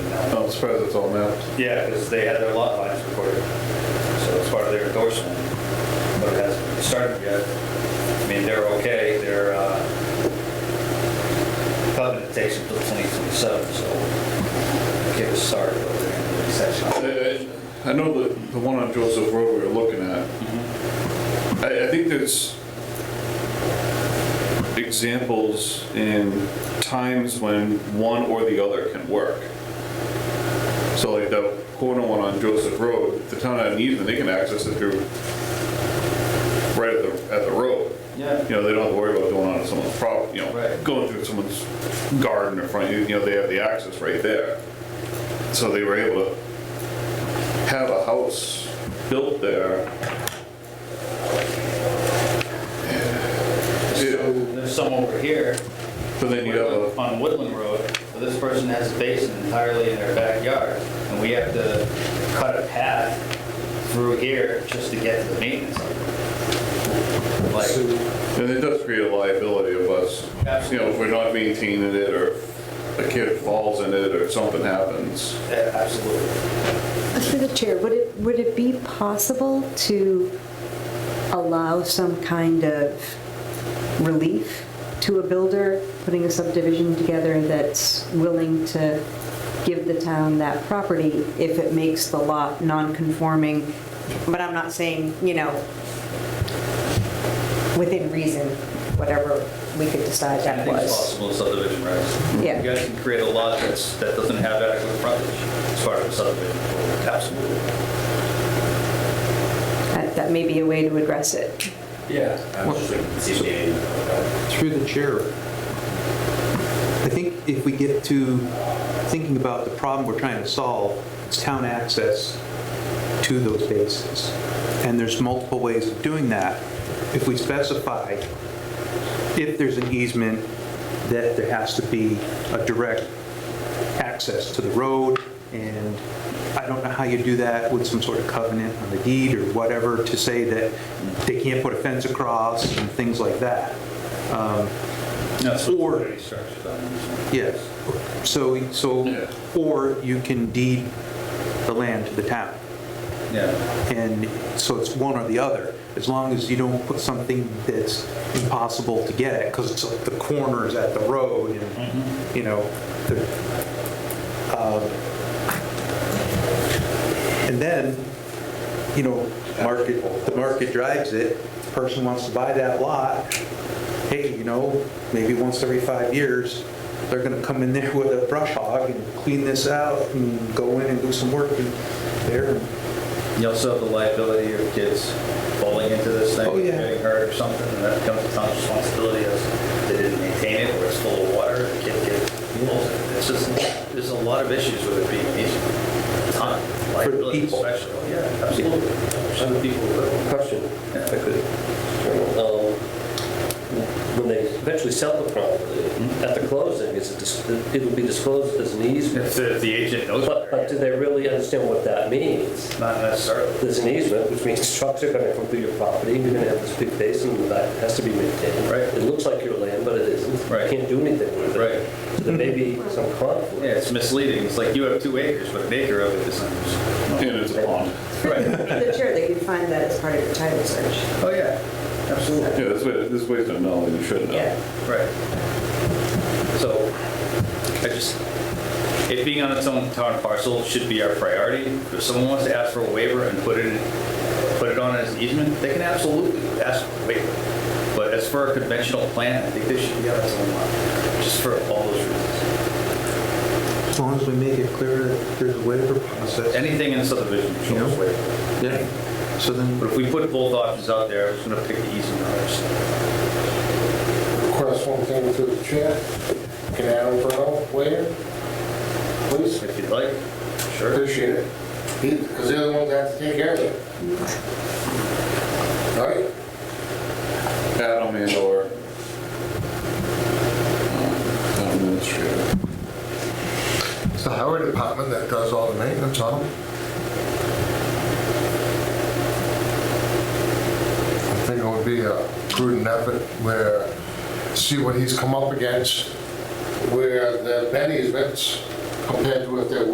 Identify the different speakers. Speaker 1: I'm surprised Oh, it's all mapped.
Speaker 2: Yeah, because they had their lot lines recorded, so it's part of their endorsement, but it hasn't been started yet. I mean, they're okay, their uh, covenant takes until 2027, so give us started over there in the section.
Speaker 1: Uh, I know the, the one on Joseph Road we were looking at. I, I think there's examples in times when one or the other can work. So like that corner one on Joseph Road, if the town had an easement, they can access it through right at the, at the road.
Speaker 2: Yeah.
Speaker 1: You know, they don't have to worry about going onto someone's property, you know,
Speaker 2: Right.
Speaker 1: going through someone's garden or front, you know, they have the access right there. So they were able to have a house built there.
Speaker 2: So There's some over here
Speaker 1: But then you have a,
Speaker 2: on Woodland Road, but this person has a basin entirely in their backyard, and we have to cut a path through here just to get to the maintenance. Like,
Speaker 1: and it does create a liability of us. You know, if we're not maintaining it, or if a kid falls in it, or something happens.
Speaker 2: Yeah, Absolutely.
Speaker 3: Through the chair, would it, would it be possible to allow some kind of relief to a builder putting a subdivision together that's willing to give the town that property if it makes the lot non-conforming? But I'm not saying, you know, within reason, whatever we could decide that
Speaker 2: Anything's
Speaker 3: was.
Speaker 2: possible in subdivision regs.
Speaker 3: Yeah.
Speaker 2: You guys can create a lot that's, that doesn't have adequate frontage as part of a subdivision. Absolutely.
Speaker 3: That that may be a way to address it.
Speaker 2: Yeah.
Speaker 4: Through the chair, I think if we get to thinking about the problem we're trying to solve, it's town access to those bases. And there's multiple ways of doing that. If we specify, if there's an easement, that there has to be a direct access to the road, and I don't know how you do that with some sort of covenant on the deed or whatever to say that they can't put a fence across and things like that.
Speaker 2: No, so
Speaker 4: Or-
Speaker 2: already structured on this.
Speaker 4: Yes. So,
Speaker 1: Yeah.
Speaker 4: so, or you can deed the land to the town.
Speaker 2: one. Yeah.
Speaker 4: And so it's one or the other, as long as you don't put something that's impossible to get at, because it's like the corners at the road and, you know, the, um, and then, you know, market, the market drives it, the person wants to buy that lot, hey, you know, maybe once every five years, they're gonna come in there with a brush hog and clean this out and go in and do some work in there and
Speaker 2: You also have the liability of kids falling into this thing.
Speaker 4: Oh, yeah.
Speaker 2: Getting hurt or something, and that becomes a town's responsibility as they didn't maintain it, or it's full of water, the kid gets, it's just, there's a lot of issues with it being an easement. Ton, liability
Speaker 4: people.
Speaker 2: especially, yeah, absolutely. Some people will.
Speaker 5: Question, if I could. Um, When they eventually sell the property, at the closing, is it, dis- it'll be disclosed as an
Speaker 2: If
Speaker 5: easement?
Speaker 2: the, if the agent knows
Speaker 5: But, but do
Speaker 2: better,
Speaker 5: they really understand what that means?
Speaker 2: not necessarily.
Speaker 5: There's an easement, which means trucks are gonna come through your property, you're gonna have this big basin in the back, it has to be maintained.
Speaker 2: Right.
Speaker 5: It looks like your land, but it isn't.
Speaker 2: Right.
Speaker 5: You can't do anything with it.
Speaker 2: Right.
Speaker 5: So there may be some conflict.
Speaker 2: Yeah, it's misleading. It's like you have two acres, but an acre of it is owners.
Speaker 1: And it's a pond.
Speaker 2: Right.
Speaker 3: The chair, they could find that as part of your title search.
Speaker 2: Oh, yeah, absolutely.
Speaker 1: Yeah, this way, this way to know, you should know.
Speaker 2: Right. So I just, it being on its own town parcel should be our priority. If someone wants to ask for a waiver and put it, in- put it on as an easement, they can absolutely ask for a waiver. But as for a conventional plan, I think they should be on its own lot, just for all those reasons.
Speaker 4: As long as we make it clear that there's a waiver process.
Speaker 2: Anything in subdivision shows
Speaker 4: Yeah.
Speaker 2: waiver.
Speaker 4: Yeah. So then,
Speaker 2: But if we put both options out there, I was gonna pick the easement option.
Speaker 6: Request one thing through the chair. Can Adam Brown weigh in? Please,
Speaker 2: If you'd like, sure.
Speaker 6: appreciate it. Because they're the ones that have to take care of it. All right,
Speaker 1: Adam and or um, town administrator.
Speaker 7: It's the highway department that does all the maintenance on them. I think it would be a prudent effort where, see what he's come up against, where the have been easements compared to if there